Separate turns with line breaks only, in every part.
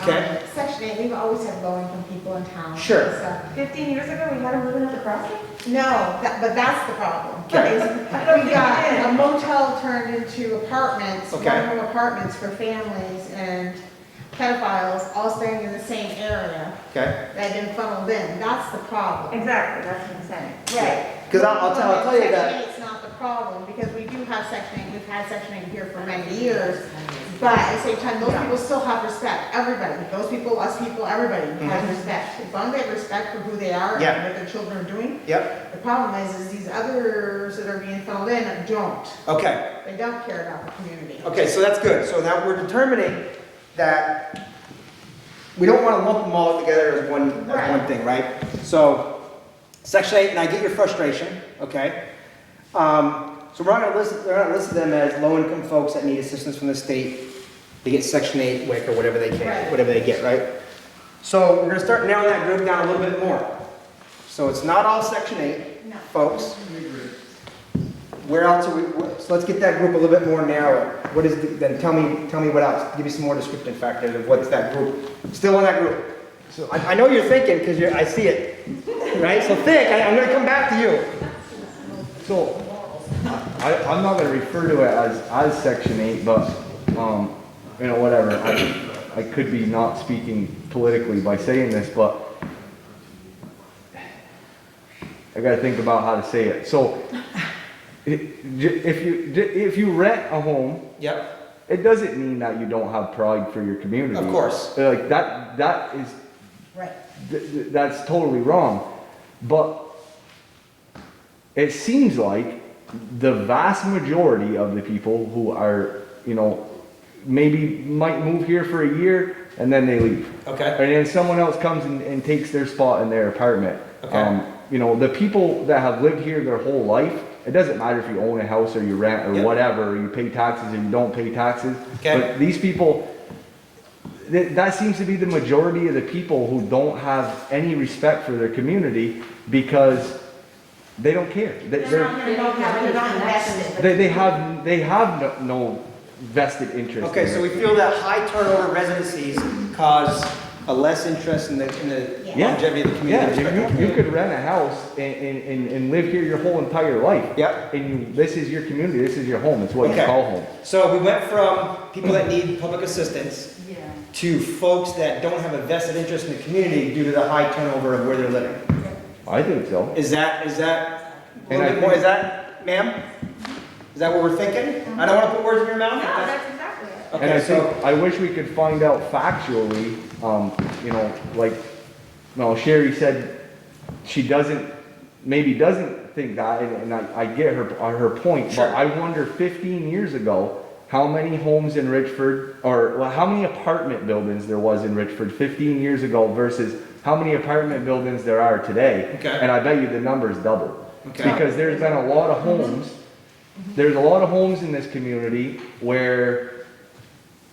Okay.
Um, Section eight, we've always had blowing from people in town.
Sure.
So-
15 years ago, we had a woman at the crossing?
No, that, but that's the problem.
Okay.
is
I don't
We
think
got
it is.
a motel turned into apartments,
Okay.
one-room apartments for families and pedophiles all staying in the same area
Okay,
that had been funneled in. That's the problem.
Exactly, that's what I'm saying.
Right.
because I'll, I'll tell, I'll tell you that,
Section eight's not the problem because we do have section eight, we've had section eight here for many years. But at the same time, those people still have respect, everybody, those people, us people, everybody has respect. As long as they have respect for who they are
Mm-hmm. Yeah.
and what their children are doing,
yep,
The problem is, is these others that are being funneled in don't.
okay,
They don't care about the community.
okay, so that's good, so now we're determining that we don't wanna lump them all together as one, as one
Right.
thing, right? So, section eight, and I get your frustration, okay? Um, so we're not gonna list, we're not gonna list them as low-income folks that need assistance from the state, they get section eight, WIC, or whatever they can,
Right.
whatever they get, right? So, we're gonna start narrowing that group down a little bit more. So it's not all section eight,
No.
folks. Where else are we, wh- so let's get that group a little bit more narrow. What is, the- then tell me, tell me what else, give me some more descriptive factors of what's that group, still in that group. So I, I know you're thinking, because you're, I see it, right? So think, I, I'm gonna come back to you.
So, I, I'm not gonna refer to it as, as section eight, but, um, you know, whatever. I, I could be not speaking politically by saying this, but I gotta think about how to say it. So, it- j- if you, j- if you rent a home,
Yep,
it doesn't mean that you don't have pride for your community.
Of course.
Like, that, that is
Right.
th- th- that's totally wrong. But it seems like the vast majority of the people who are, you know, maybe might move here for a year and then they leave.
okay,
And then someone else comes and, and takes their spot in their apartment.
Okay.
Um, you know, the people that have lived here their whole life, it doesn't matter if you own a house or you rent or
Yep.
whatever, or you pay taxes or you don't pay taxes.
Okay.
But these people, that, that seems to be the majority of the people who don't have any respect for their community because they don't care. They,
They're
they're-
not, gonna know how- they're not invested.
they, they have, they have no, no vested interest.
okay,
in
so
it.
we feel that high turnover residencies cause a less interest in the, in the
Yeah.
longevity of the community.
Yeah,
respect of the
you, you
community.
could rent a house and, and, and, and live here your whole entire life.
Yep.
And you, this is your community, this is your home, it's what you
Okay.
call home.
So we went from people that need public assistance to folks that don't have a vested interest in the community due to the high turnover of where they're living.
I think so.
Is that, is that, a
And I
little bit more,
think-
is that, ma'am? Is that what we're thinking? I don't wanna put words in your
No,
mouth. but that's-
that's exactly it.
And I
Okay,
think,
so,
I wish we could find out factually, um, you know, like, well, Sherry said she doesn't, maybe doesn't think that, and, and I, I get her, uh, her point, but
Sure.
I wonder fifteen years ago, how many homes in Richford, or well, how many apartment buildings there was in Richford fifteen years ago versus how many apartment buildings there are today?
Okay.
And I bet you the number's doubled.
Okay.
Because there's been a lot of homes, there's a lot of homes in this community where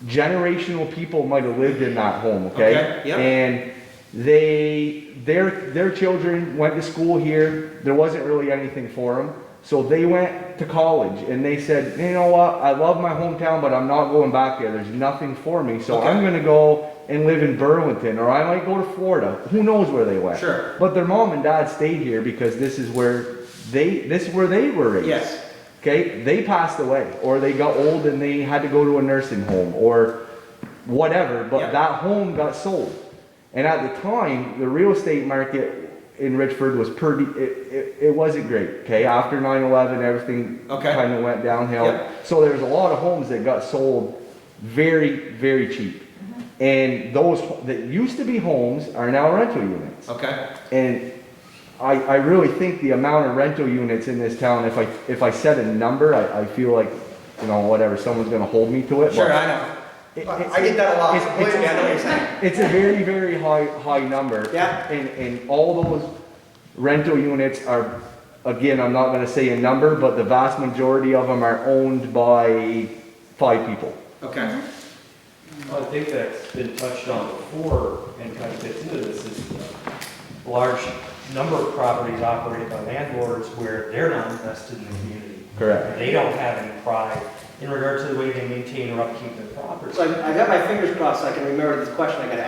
generational people might have lived in that home, okay?
Okay, yeah.
And they, their, their children went to school here, there wasn't really anything for them. So they went to college and they said, you know what, I love my hometown, but I'm not going back there, there's nothing for me, so I'm
Okay.
gonna go and live in Burlington, or I might go to Florida, who knows where they went?
Sure.
But their mom and dad stayed here because this is where they, this is where they were raised.
yes,
Okay, they passed away, or they got old and they had to go to a nursing home, or whatever,
Yeah.
but that home got sold. And at the time, the real estate market in Richford was pretty, it, it, it wasn't great, okay? After 9 11, everything
Okay.
kind of went
Yeah.
downhill. So there's a lot of homes that got sold very, very cheap.
Mm-hmm.
And those ho- that used to be homes are now rental units.
okay,
And I, I really think the amount of rental units in this town, if I, if I said a number, I, I feel like, you know, whatever, someone's gonna hold me to it. but
sure, I know.
it- it's-
I get that a lot,
it's- it's-
believe me, I know what you're saying.
It's a very, very high, high number.
Yeah.
And, and all those rental units are, again, I'm not gonna say a number, but the vast majority of them are owned by five people.
Okay,
Well, I think that's been touched on before and kind of fits into this, is a large number of properties operated by landlords where they're not invested in the community.
Correct.
They don't have any pride
in regard to the way they maintain or upkeep their property.
So I- I've got my fingers crossed, so I can remember this question I gotta ask.